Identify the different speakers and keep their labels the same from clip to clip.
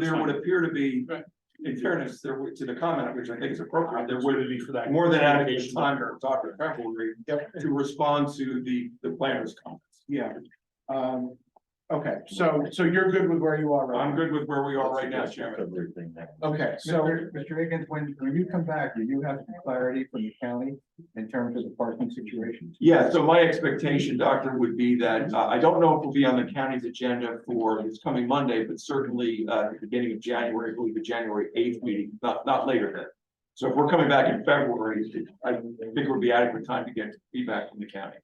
Speaker 1: there would appear to be,
Speaker 2: Right. Uh,
Speaker 1: in fairness, there would, to the comment, which I think is appropriate, there would
Speaker 2: would be for that.
Speaker 1: more than adequate time for Dr. Pepperly to respond to the, the planner's comments.
Speaker 2: Yeah, um, okay, so, so you're good with where you are, right?
Speaker 1: I'm good with where we are right now, Chairman.
Speaker 3: Everything that.
Speaker 2: Okay,
Speaker 4: So,
Speaker 2: so,
Speaker 4: Mr. Higgins, when, when you come back, do you have some clarity from the county in terms of the parking situation?
Speaker 1: Yeah, so my expectation, Doctor, would be that, uh, I don't know if it'll be on the county's agenda for this coming Monday, but certainly, uh, at the beginning of January, I believe the January eighth meeting, not, not later than. So if we're coming back in February, I think it would be adequate time to get feedback from the county.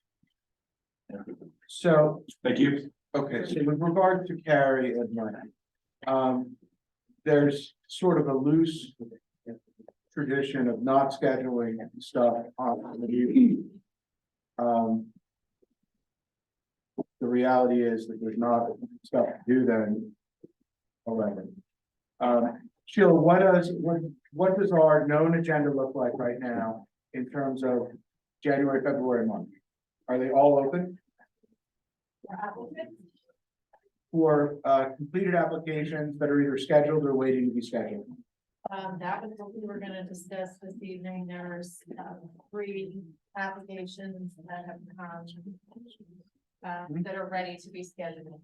Speaker 2: so,
Speaker 1: Thank you.
Speaker 2: okay, so with regard to Carrie and mine. Um, there's sort of a loose. Tradition of not scheduling stuff on the evening. Um. The reality is that there's not stuff to do then. Eleven. Um, Sheila, what does, what, what does our known agenda look like right now in terms of January, February month? Are they all open? For uh completed applications that are either scheduled or waiting to be scheduled?
Speaker 5: Um, that was what we were gonna discuss this evening. There's, um, three applications that have come. Uh,
Speaker 2: Mm-hmm.
Speaker 5: that are ready to be scheduled.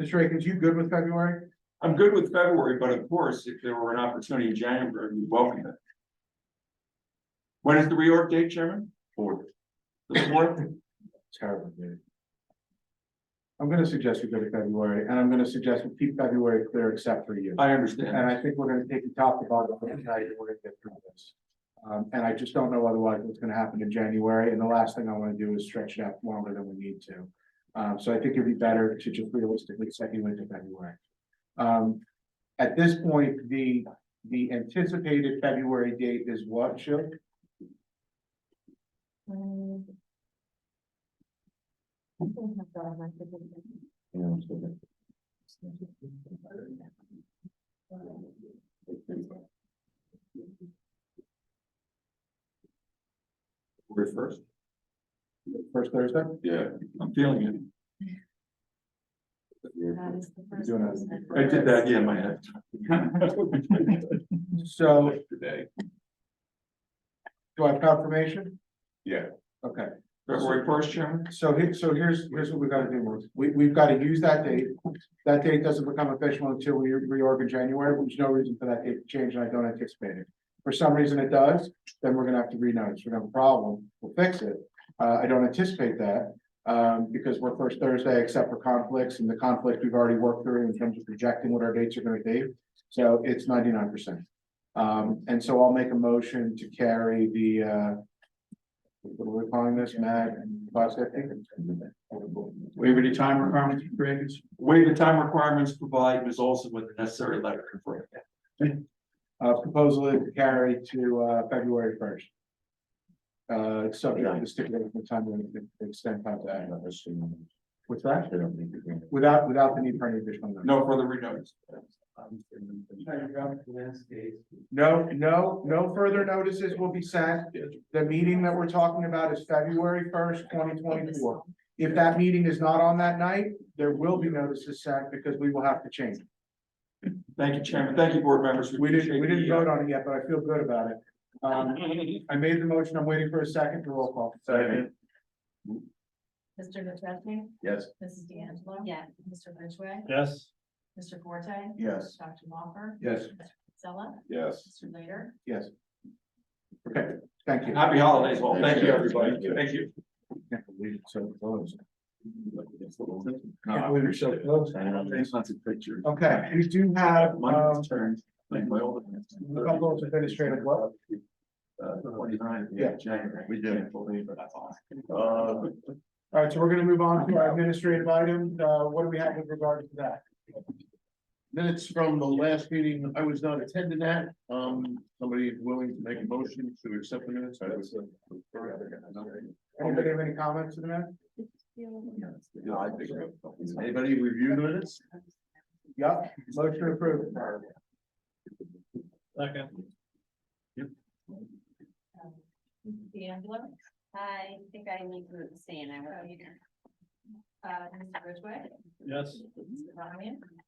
Speaker 2: Mr. Akins, you good with February?
Speaker 1: I'm good with February, but of course, if there were an opportunity in January, we welcome it. When is the reorg date, Chairman? Fourth. The fourth?
Speaker 2: Terrible, dude. I'm gonna suggest we go to February, and I'm gonna suggest we keep February clear except for you.
Speaker 1: I
Speaker 2: And
Speaker 1: understand.
Speaker 2: I think we're gonna take the top to bottom of the night, and we're gonna get through this. Um, and I just don't know otherwise what's gonna happen in January, and the last thing I wanna do is stretch it out longer than we need to. Um, so I think it'd be better to just realistically set you into February. Um, at this point, the, the anticipated February date is what, Chip?
Speaker 5: Um, I think I've got my-
Speaker 3: you know, so that-
Speaker 1: February first.
Speaker 2: First Thursday?
Speaker 3: Yeah.
Speaker 1: I'm feeling it.
Speaker 5: That is the first
Speaker 2: doing that.
Speaker 5: person.
Speaker 1: I did that, yeah, in my head.
Speaker 2: So
Speaker 3: Today.
Speaker 2: do I have confirmation?
Speaker 3: Yeah.
Speaker 2: Okay.
Speaker 1: February first, Chairman?
Speaker 2: So here, so here's, here's what we gotta do, Melissa. we, we've gotta use that date. That date doesn't become official until we reorg in January, which no reason for that date to change, and I don't anticipate it. For some reason it does, then we're gonna have to renotice, we have a problem, we'll fix it. Uh, I don't anticipate that, um, because we're first Thursday except for conflicts, and the conflict we've already worked through in terms of projecting what our dates are gonna be. So it's ninety-nine percent. Um, and so I'll make a motion to carry the, uh, what are we calling this, Mag, Five seconds.
Speaker 1: Waive the time requirements, Graves. Waive the time requirements, provide Ms. Olson with the necessary letter confirming. that.
Speaker 2: Uh, proposal is carried to, uh, February first. Uh, it's subject to stipulating the time and the extent of
Speaker 3: I
Speaker 2: that.
Speaker 3: don't assume-
Speaker 2: What's that?
Speaker 3: I don't think we're gonna-
Speaker 2: Without, without the need for any additional. notice.
Speaker 1: No further renotice.
Speaker 2: No, no, no further notices will be sent. The meeting that we're talking about is February first, twenty twenty-four. If that meeting is not on that night, there will be notices sent because we will have to change. it.
Speaker 1: Thank you, Chairman. Thank you, board members.
Speaker 2: We didn't, we
Speaker 1: appreciate
Speaker 2: didn't
Speaker 1: the, uh,
Speaker 2: vote on it yet, but I feel good about it. Um, I made the motion. I'm waiting for a second to roll call.
Speaker 3: Second.
Speaker 5: Mr. Natchezny,
Speaker 3: Yes.
Speaker 5: Mrs. D'Angelo. Yeah. Mr. Ridgway,
Speaker 1: uh,
Speaker 2: Yes.
Speaker 5: Mr. Forte.
Speaker 2: Yes.
Speaker 5: Dr. Walker.
Speaker 2: Yes.
Speaker 5: Mr. Sella,
Speaker 3: Yes.
Speaker 5: Mr. Later.
Speaker 2: Yes. Okay, thank you.
Speaker 1: Happy holidays, all. Thank you, everybody. Thank you.
Speaker 2: Can't believe it's so close.
Speaker 1: No,
Speaker 2: believe it's so close.
Speaker 3: I don't think-
Speaker 1: lots of pictures.
Speaker 2: Okay, we do have,
Speaker 1: My
Speaker 2: um,
Speaker 1: turn. like my old-
Speaker 2: a couple of administrative what?
Speaker 1: Uh, twenty-nine,
Speaker 2: Yeah.
Speaker 1: yeah, January.
Speaker 3: We did.
Speaker 1: Can't believe it, that's awesome. Uh,
Speaker 2: All right, so we're gonna move on to our administrative items. Uh, what do we have with regard to that?
Speaker 6: Minutes from the last meeting, I was not attending that, um, somebody willing to make a motion to accept the minutes? I was, uh,
Speaker 2: Anybody have any comments to that?
Speaker 3: Yeah, I think so.
Speaker 6: Anybody review the minutes?
Speaker 2: Yep, motion approved.
Speaker 5: Mrs. um, D'Angelo.
Speaker 7: I think I need to abstain, I won't either.
Speaker 5: Uh, Mr. Ridgway.
Speaker 6: Yes.
Speaker 5: Mr. Ryan.